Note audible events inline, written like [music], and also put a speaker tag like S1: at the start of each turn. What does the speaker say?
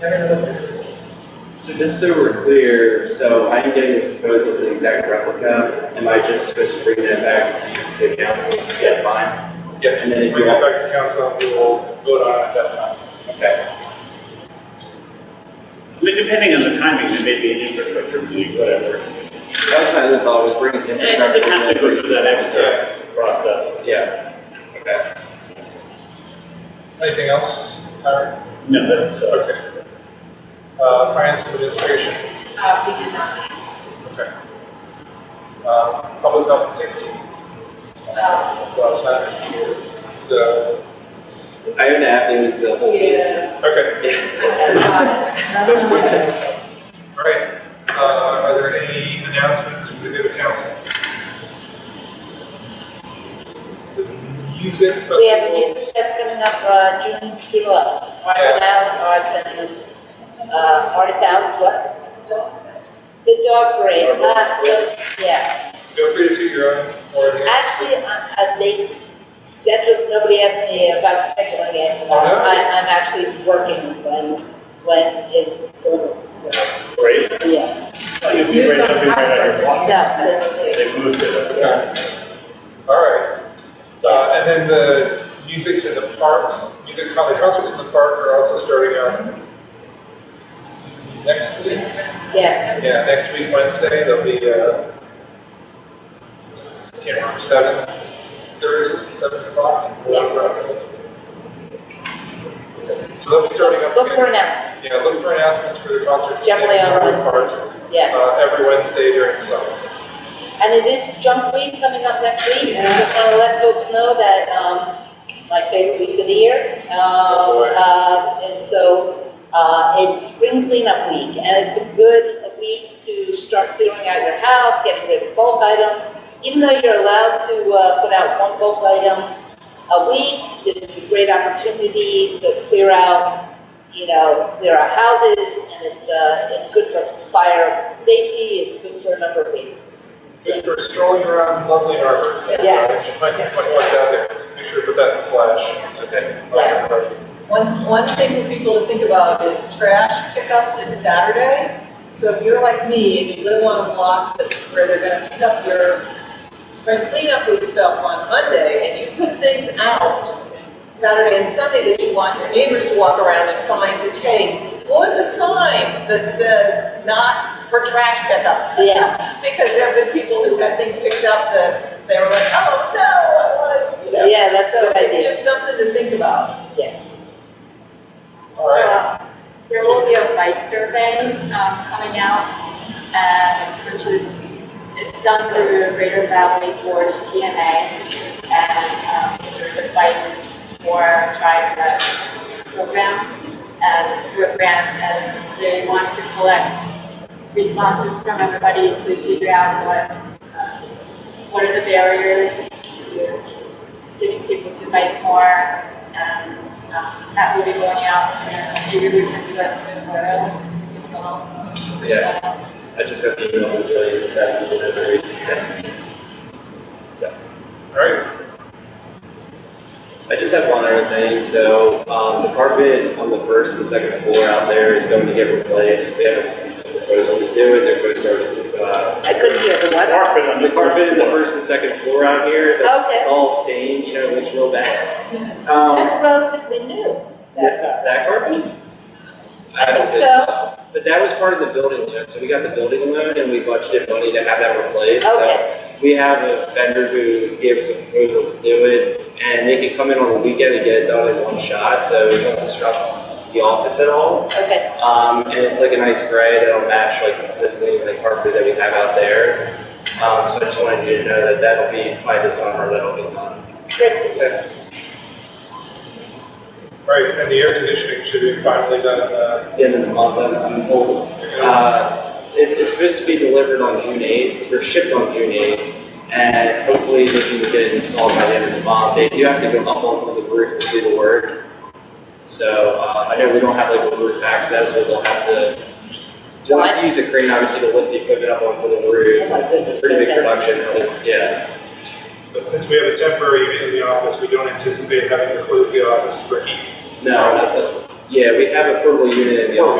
S1: Never know what to do.
S2: So just so we're clear, so I'm getting a proposal for the exact replica, am I just supposed to bring that back to, to council, is that fine?
S3: Yes,
S2: And then if
S3: we
S2: you
S3: go
S2: want-
S3: back to council, we will vote on it at that time.
S2: Okay.
S4: I mean, depending on the timing, there may be an infrastructure need, whatever.
S2: That was my other thought, was bringing some.
S4: It doesn't have to go through that extra process.
S2: Yeah, okay.
S3: Anything else, Howard?
S4: No, that's, uh,
S3: Okay. Uh, finance and administration,
S5: Uh,
S1: 아,
S5: we did not meet.
S3: okay. Um, public health and safety,
S5: Uh,
S3: well, it's not here, so,
S2: I don't know, it was the
S1: 아,
S2: whole.
S5: yeah.
S3: okay,
S5: That's not-
S3: that's quick. All right, uh, are there any announcements for the good of council? The music festival.
S6: We have a music fest coming up, uh, June, July, Arts and Out, Arts and, uh, Arts Out's what? The dog parade, uh, so, yeah.
S3: Feel free to toot your own horn here.
S6: Actually, I, I, they scheduled, nobody asked me about scheduling it.
S3: Oh, no?
S6: I, I'm actually working when, when it's going, so,
S4: great.
S6: yeah.
S4: It'd be right up, be right on your block.
S6: That's it.
S4: They moved it up.
S3: Okay. All right. Uh, and then the music's in the park, music, the concerts in the park are also starting out next week.
S6: Yeah,
S3: Yeah, next week, Wednesday, there'll be, uh, can't remember, seven thirty, seven o'clock. So they'll be starting up
S6: look for
S3: again.
S6: an announcement,
S3: Yeah, look for announcements for the concerts. in
S6: Generally on
S3: the park,
S6: Wednesdays, yes.
S3: Uh, every Wednesday during the summer.
S6: And it is junk week coming up next week, and I just wanna let folks know that, um, my favorite week of the year. Um,
S3: boy.
S6: uh, and so, uh, it's spring cleanup week, and it's a good week to start clearing out your house, getting rid of bulk items. Even though you're allowed to, uh, put out one bulk item a week, this is a great opportunity to clear out, you know, clear out houses, and it's, uh, it's good for fire safety, it's good for a number of reasons.
S3: Good for strolling around lovely harbor.
S6: Yes.
S3: Might, might watch out there, make sure to put that in flash. Okay.
S6: Yes.
S1: One, one thing for people to think about is trash pickup is Saturday. So if you're like me and you live on a block that, where they're gonna pick up your spring cleanup week stuff on Monday and you put things out Saturday and Sunday that you want your neighbors to walk around and find to take, put a sign that says not for trash pickup.
S6: Yes.
S1: [laughs] Because there have been people who had things picked up that they were like, oh, no, I want to, you know.
S6: Yeah, that's
S1: So
S6: what I
S1: it's
S6: did,
S1: just something to think about.
S6: yes.
S3: All right,
S7: There will be a bike survey um, coming out, uh, which is, it's done through Greater Valley Forge TMA and um, through the Bike for Drive Rec program, and it's through a grant, and they want to collect responses from everybody to figure out what, um, what are the barriers to getting people to bike more, and um, that will be going out soon. Maybe we can do that tomorrow. as well.
S2: Yeah. I just got the email from Julie this afternoon, I very,
S3: all right,
S2: I just have one other thing, so, um, the carpet on the first and second floor out there is going to get replaced, we have a proposal to do it, their co-stars, uh,
S6: I couldn't hear the what?
S4: Carpet on
S2: the
S4: the first
S2: carpet in the
S4: floor.
S2: first and second floor out here, that-
S6: Okay.
S2: it's all stained, you know, it looks real bad. Um,
S6: That's relatively new, that
S2: that that carpet?
S6: I
S2: don't
S6: think so.
S2: But that was part of the building loan, so we got the building loan and we budgeted money to have that replaced, so.
S6: Okay,
S2: We have a vendor who gave us a proposal to do it, and they could come in on a weekend and get it done in one shot, so it won't disrupt the office at all.
S6: okay,
S2: Um, and it's like a nice gray that'll match like existing like carpet that we have out there. Um, so I just wanted you to know that that'll be by the summer that'll be done.
S6: great.
S3: all right, and the air conditioning should be finally done, uh,
S2: At the end of the month, I'm, I'm told. Uh, it's, it's supposed to be delivered on June eighth, or shipped on June eighth, and hopefully they can get it installed by the end of the month. They do have to go up onto the roof to do the work. So, uh, I know we don't have like a roof access, so they'll have to, they'll have to use a crane obviously to lift the equipment up onto the roof. It's it's a pretty big production, really. yeah.
S3: but since we have a temporary unit in the office, we don't anticipate having to close the office for heat.
S2: No, that's,
S8: Yeah, we have a portable unit in the
S2: Portable.